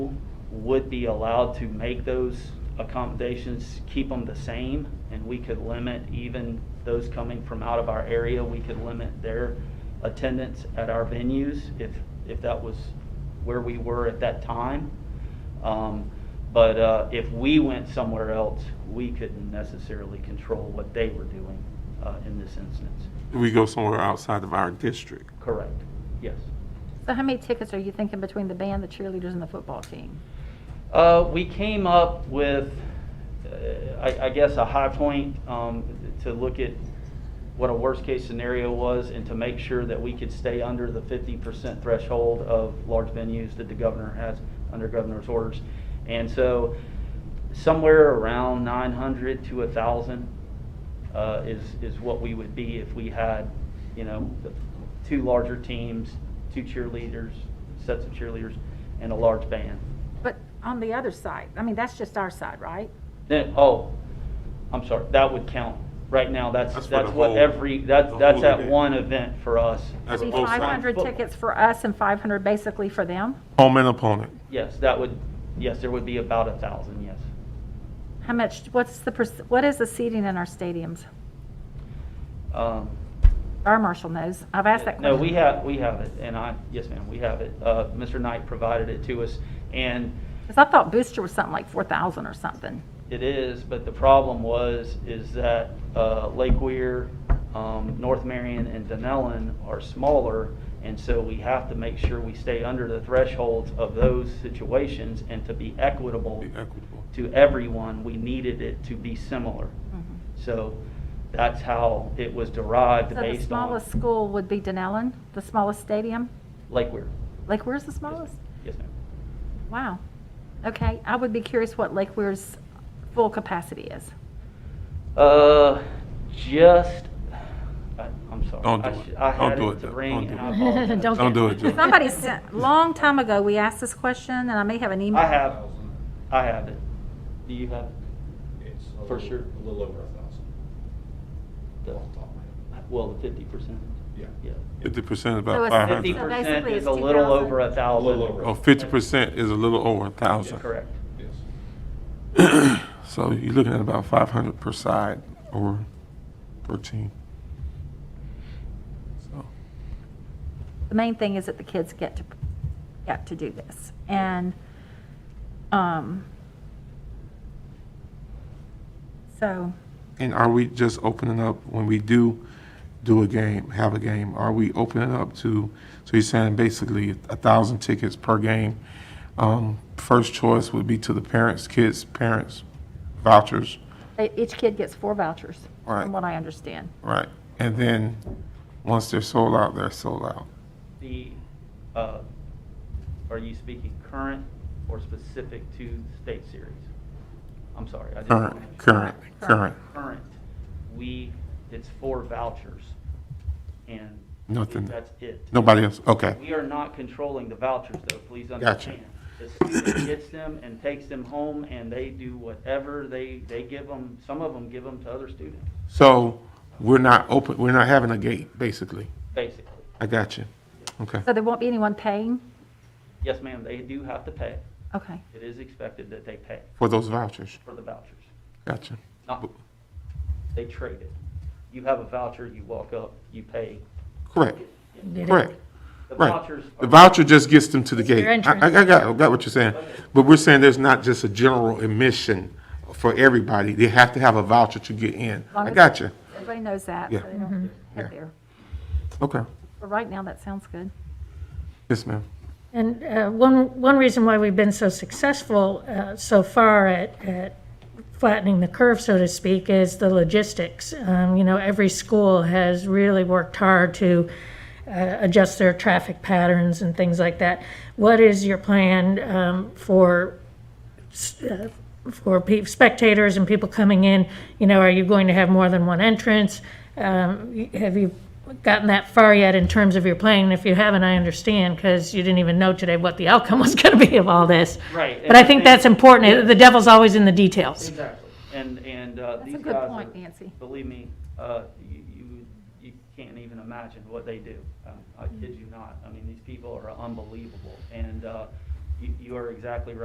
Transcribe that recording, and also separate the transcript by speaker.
Speaker 1: would be allowed to make those accommodations, keep them the same, and we could limit even those coming from out of our area, we could limit their attendance at our venues if, if that was where we were at that time. Um, But uh, if we went somewhere else, we couldn't necessarily control what they were doing uh, in this instance.
Speaker 2: We go somewhere outside of our district.
Speaker 1: Correct, yes.
Speaker 3: So how many tickets are you thinking between the band, the cheerleaders, and the football team?
Speaker 1: Uh, we came up with, uh, I, I guess, a high point, um, to look at what a worst-case scenario was and to make sure that we could stay under the fifty percent threshold of large venues that the governor has under governor's orders. And so somewhere around nine hundred to a thousand, uh, is, is what we would be if we had, you know, the two larger teams, two cheerleaders, sets of cheerleaders, and a large band.
Speaker 3: But on the other side, I mean, that's just our side, right?
Speaker 1: Then, oh, I'm sorry, that would count. Right now, that's,
Speaker 2: That's for
Speaker 1: that's
Speaker 2: the
Speaker 1: what
Speaker 2: whole-
Speaker 1: every, that's,
Speaker 2: the
Speaker 1: that's
Speaker 2: whole
Speaker 1: at
Speaker 2: event.
Speaker 1: one event for us.
Speaker 2: That's
Speaker 3: Be
Speaker 2: both sides.
Speaker 3: 500 tickets for us and 500 basically for them?
Speaker 2: Home and opponent.
Speaker 1: Yes, that would, yes, there would be about a thousand, yes.
Speaker 3: How much, what's the, perc- what is the seating in our stadiums?
Speaker 1: Um,
Speaker 3: Our marshal knows. I've asked that
Speaker 1: No,
Speaker 3: question.
Speaker 1: we have, we have it, and I, yes, ma'am, we have it. Uh, Mr. Knight provided it to us, and
Speaker 3: Because I thought Booster was something like 4,000 or something.
Speaker 1: It is, but the problem was, is that uh, Lake Weir, um, North Marion, and Denellen are smaller, and so we have to make sure we stay under the thresholds of those situations, and to be equitable
Speaker 2: Be equitable.
Speaker 1: to everyone, we needed it to be similar.
Speaker 3: Mm-hmm.
Speaker 1: So that's how it was derived
Speaker 3: So the
Speaker 1: based on
Speaker 3: smallest school would be Denellen, the smallest stadium?
Speaker 1: Lake Weir.
Speaker 3: Like, where's the
Speaker 1: Yes,
Speaker 3: smallest?
Speaker 1: Yes, ma'am.
Speaker 3: Wow. Okay, I would be curious what Lake Weir's full capacity is.
Speaker 1: Uh, just, I- I'm sorry.
Speaker 2: Don't
Speaker 1: I
Speaker 2: do it.
Speaker 1: should- I
Speaker 2: Don't
Speaker 1: had
Speaker 2: do
Speaker 1: it
Speaker 2: it,
Speaker 1: to
Speaker 2: Doug.
Speaker 1: bring,
Speaker 2: Don't
Speaker 1: and
Speaker 2: do
Speaker 1: I
Speaker 2: it.
Speaker 1: apologize.
Speaker 3: Don't
Speaker 2: Don't do it, Joe.
Speaker 3: Somebody sent, long time ago, we asked this question, and I may have an email.
Speaker 1: I have, I have it. Do you have?
Speaker 4: It's a
Speaker 1: For
Speaker 4: little-
Speaker 1: sure.
Speaker 4: A little over a thousand.
Speaker 1: the-
Speaker 4: off the top of my head.
Speaker 1: Well, the fifty percent.
Speaker 4: Yeah.
Speaker 1: Yeah.
Speaker 2: Fifty percent is
Speaker 3: So
Speaker 2: about
Speaker 3: it's
Speaker 2: five
Speaker 1: Fifty
Speaker 2: hundred.
Speaker 1: percent
Speaker 3: basically
Speaker 1: is a
Speaker 3: it's
Speaker 1: little
Speaker 3: 2,000.
Speaker 1: over a thousand.
Speaker 4: A little over.
Speaker 2: Oh, fifty percent is a little over a
Speaker 1: Yeah,
Speaker 2: thousand.
Speaker 1: Correct.
Speaker 4: Yes.
Speaker 2: So you're looking at about five hundred per side or per team. So,
Speaker 3: The main thing is that the kids get to, get to do this. And, um, so,
Speaker 2: And are we just opening up, when we do do a game, have a game, are we opening up to, so you're saying basically a thousand tickets per game? Um, First choice would be to the parents, kids, parents, vouchers,
Speaker 3: e- each kid gets four vouchers,
Speaker 2: Right.
Speaker 3: from what I understand.
Speaker 2: right? And then, once they're sold out, they're sold out.
Speaker 1: The, uh, are you speaking current or specific to state series? I'm sorry. I didn't-
Speaker 2: Current, current, current,
Speaker 1: Current. We, it's four vouchers and.
Speaker 2: Nothing.
Speaker 1: That's it.
Speaker 2: nobody else, okay.
Speaker 1: We are not controlling the vouchers, though, please
Speaker 2: Gotcha.
Speaker 1: understand. The student gets them and takes them home, and they do whatever they, they give them, some of them give them to other students,
Speaker 2: So, we're not open, we're not having a gate, basically.
Speaker 1: basically.
Speaker 2: I got you. Okay,
Speaker 3: So there won't be anyone paying?
Speaker 1: Yes, ma'am, they do have to pay.
Speaker 3: Okay.
Speaker 1: It is expected that they pay
Speaker 2: for those vouchers,
Speaker 1: for the vouchers.
Speaker 2: gotcha.
Speaker 1: Not, they trade it. You have a voucher, you walk up, you pay.
Speaker 2: Correct, correct.
Speaker 1: The
Speaker 2: Right.
Speaker 1: vouchers
Speaker 2: The
Speaker 1: are,
Speaker 2: voucher just gets them to the gate. I, I I got, I got what you're saying. But we're saying there's not just a general admission for everybody. They have to have a voucher to get in. I got you.
Speaker 3: Everybody knows that, so
Speaker 2: Yeah.
Speaker 3: they don't
Speaker 2: Yeah.
Speaker 3: head there.
Speaker 2: Okay.
Speaker 3: But right now, that sounds good.
Speaker 2: Yes, ma'am.
Speaker 5: And uh, one, one reason why we've been so successful uh, so far at, at flattening the curve, so to speak, is the logistics. Um, You know, every school has really worked hard to uh, adjust their traffic patterns and things like that. What is your plan um, for uh, for pe- spectators and people coming in, you know, are you going to have more than one entrance? Um, y- Have you gotten that far yet in terms of your plan? And If you haven't, I understand, because you didn't even know today what the outcome was going to be of all this.
Speaker 1: Right, and
Speaker 5: But I
Speaker 1: the
Speaker 5: think
Speaker 1: thing-
Speaker 5: that's important. The devil's always in the details.
Speaker 1: exactly. And, and, uh,
Speaker 3: That's a
Speaker 1: these guys
Speaker 3: good
Speaker 1: are.
Speaker 3: point, Nancy.
Speaker 1: believe me, uh, you, you, you can't even imagine what they do. Um,
Speaker 3: Mm.
Speaker 1: I kid you not. I mean, these people are unbelievable. And, uh, you, you are exactly right.